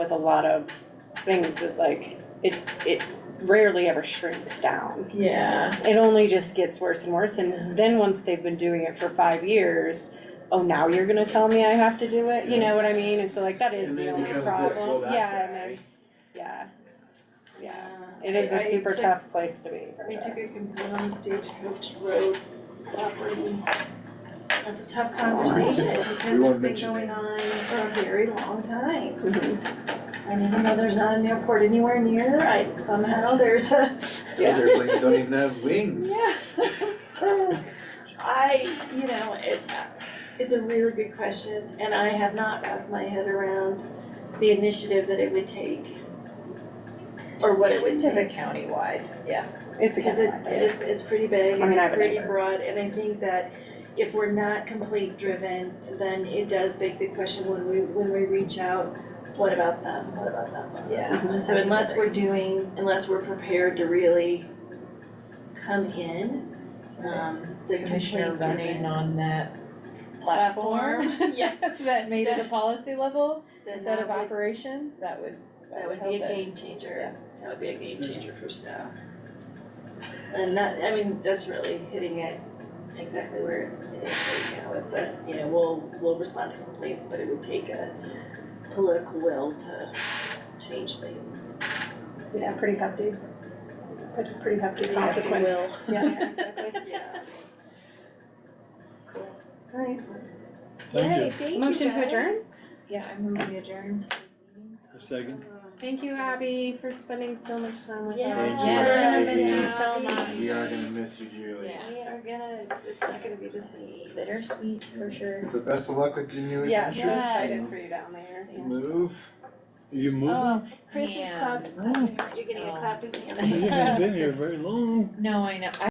with a lot of things is like, it, it rarely ever shrinks down. Yeah, It only just gets worse and worse, and then once they've been doing it for five years, oh, now you're gonna tell me I have to do it, you know what I mean? And so like, that is And the then it only becomes this, well, problem, that yeah, and guy, then, yeah. Yeah, yeah. it is I- a I super took- tough place to be, for We sure. took a complaint on Stagecoach Road property. That's a tough conversation because won't it's been mention going names. on for a very long time. Mhm. And even though there's not an airport anywhere near, I somehow there's a, Yeah. those airplanes don't even have wings. yeah. So I, you know, it, it's a really good question and I have not wrapped my head around the initiative that it would take. Or what it would To the take. countywide, yeah. It's a Because good it's, one. it's, it's pretty big I and mean, I it's have a pretty neighbor. broad, and I think that if we're not complete driven, then it does beg the question when we, when we reach out, what about them, what about them, what about them? Yeah. And so unless we're doing, unless we're prepared to really come in, um, the Commissioner complaint running driven on that platform. platform, yes, That made it a policy level then instead that of would, operations, that would, uh, that would help be it. a game changer, that would be a game changer for staff. And that, I mean, that's really hitting it exactly where it is right now, is that, you know, we'll, we'll respond to complaints, but it would take a political will to change things. Yeah, pretty hefty. Pretty, pretty hefty consequence. Will. Yeah, yeah, exactly. Yeah. Cool. Alright. Thank you. Yay, thank you Motion to guys. adjourn? yeah, I move we adjourn. A second. Thank you, Abby, for spending so much time with Yeah. us. Thank you, We're Abby. gonna miss you so much. We are gonna miss you dearly. Yeah. We are gonna, it's not gonna be the same. Bittersweet for sure. But best of luck with your new Yeah, adventure. so excited for you down there. Move. You moving? Oh, Chris is Man. clapping, you're getting a Oh. clap in the hand. You haven't been here very long. No, I know,